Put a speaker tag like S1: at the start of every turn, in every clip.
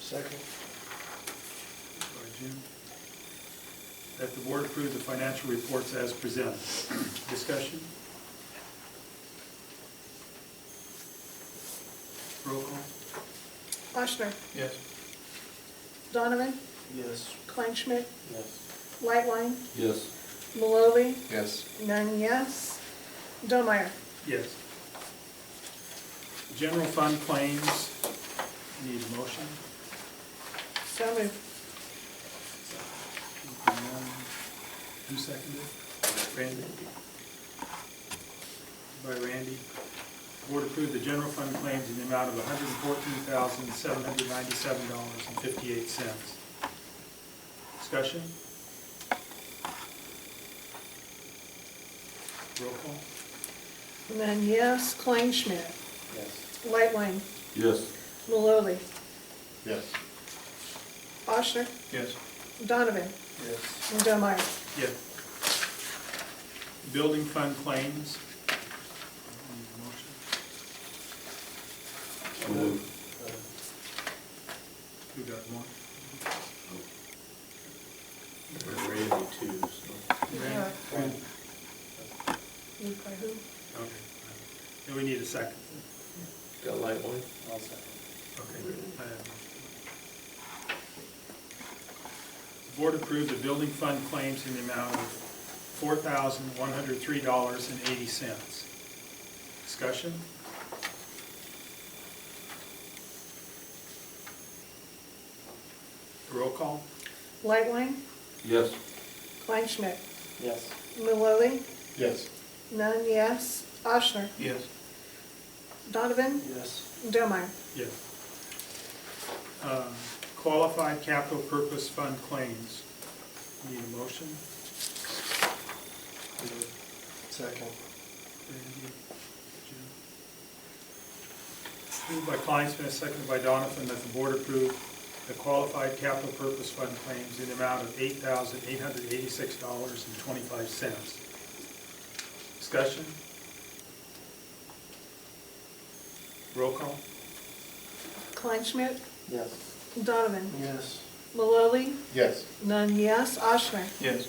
S1: Second. By Jim. That the board approve the financial reports as presented. Discussion? Roll call?
S2: Ochsner,
S3: Yes.
S2: Donovan,
S4: Yes.
S2: Kleinschmidt,
S4: Yes.
S2: Lightline,
S3: Yes.
S2: Maloli,
S3: Yes.
S2: none yes. Domeyer,
S1: Yes. General fund claims, need a motion?
S2: so moved.
S1: Who seconded? Randy? By Randy. Board approved the general fund claims in the amount of hundred and fourteen thousand, seven hundred ninety-seven dollars and fifty-eight cents. Discussion? Roll call?
S2: None yes. Kleinschmidt,
S4: Yes.
S2: Lightline,
S3: Yes.
S2: Maloli,
S4: Yes.
S2: Ochsner,
S3: Yes.
S2: Donovan,
S4: Yes.
S2: and Domeyer.
S1: Yeah. Building fund claims. Motion? Who got one?
S4: Randy too, so.
S1: Randy?
S2: Moved by Uh, who?
S1: Okay. And we need a second.
S4: Got a light one? I'll second.
S1: Okay. I have one. The Board approved the building fund claims in the amount of four thousand one hundred three dollars and eighty cents. Discussion? Roll call?
S2: Lightline,
S3: Yes.
S2: Kleinschmidt,
S4: Yes.
S2: Maloli,
S4: Yes.
S2: none yes. Ochsner,
S3: Yes.
S2: Donovan,
S4: Yes.
S2: and Domeyer.
S1: Yeah. Um, Qualified capital purpose fund claims. Need a motion?
S4: Second.
S1: Randy, Jim? Moved by Kleinsmith, seconded by Donovan, that the board approve the qualified capital purpose fund claims in the amount of eight thousand eight hundred eighty-six dollars and twenty-five cents. Discussion? Roll call?
S2: Kleinschmidt,
S4: Yes.
S2: Donovan,
S4: Yes.
S2: Maloli,
S4: Yes.
S2: none yes. Ochsner,
S3: Yes.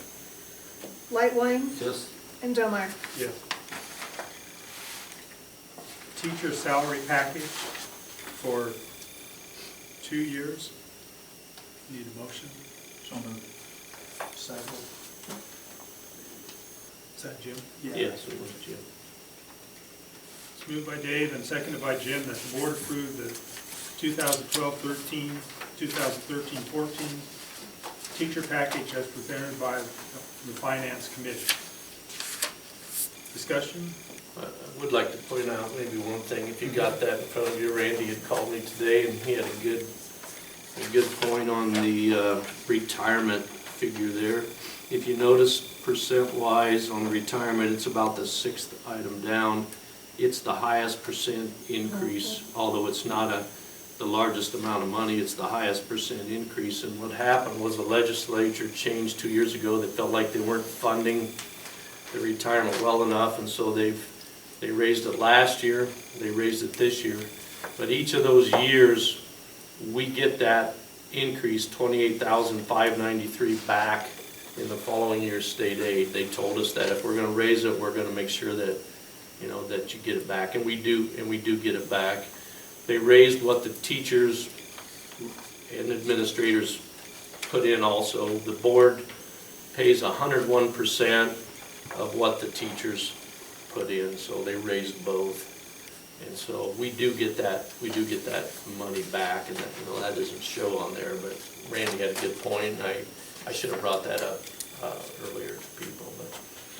S2: Lightline,
S3: Yes.
S2: and Domeyer.
S1: Yes. Teacher salary package for two years. Need a motion?
S3: So moved.
S4: Second.
S1: Is that Jim?
S4: Yes, it was Jim.
S1: It's moved by Dave and seconded by Jim that the board approve the 2012-13, 2013-14 teacher package as presented by the finance committee. Discussion?
S5: I I would like to point out maybe one thing, if you got that in front of you, Randy had called me today and he had a good, a good point on the uh, retirement figure there. If you notice percent wise on the retirement, it's about the sixth item down. It's the highest percent increase, although it's not a, the largest amount of money, it's the highest percent increase. And what happened was the legislature changed two years ago, they felt like they weren't funding the retirement well enough, and so they've, they raised it last year, they raised it this year. But each of those years, we get that increase, twenty-eight thousand five ninety-three back in the following year's state aid. They told us that if we're gonna raise it, we're gonna make sure that, you know, that you get it back, and we do, and we do get it back. They raised what the teachers and administrators put in also. The board pays hundred one percent of what the teachers put in, so they raised both. And so we do get that, we do get that money back, and that, you know, that doesn't show on there, but Randy had a good point, and I, I should have brought that up, uh, earlier to people, but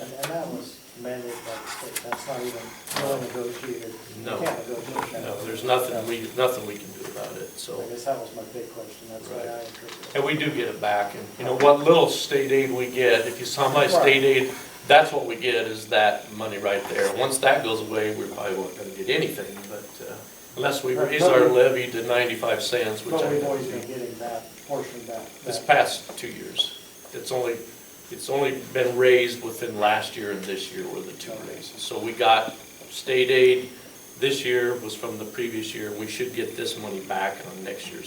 S4: And, and that was mandated by the state, that's not even, no negotiated. You
S5: No.
S4: Can't negotiate that.
S5: no, there's nothing we, nothing we can do about it, so.
S4: I guess that was my big question, that's why I
S5: Right.
S4: interpreted. it.
S5: And we do get it back, and you know, what little state aid we get, if you saw my state aid, that's what we get, is that money right there. And Once that goes away, we're probably not gonna get anything, but, uh, unless we raise our levy to ninety-five cents, which
S4: But
S5: I,
S4: we've always been getting that portion back.
S5: this
S4: back.
S5: past two years. It's only, it's only been raised within last year and this year were the two raises. So we got state aid this year was from the previous year, we should get this money back on next year's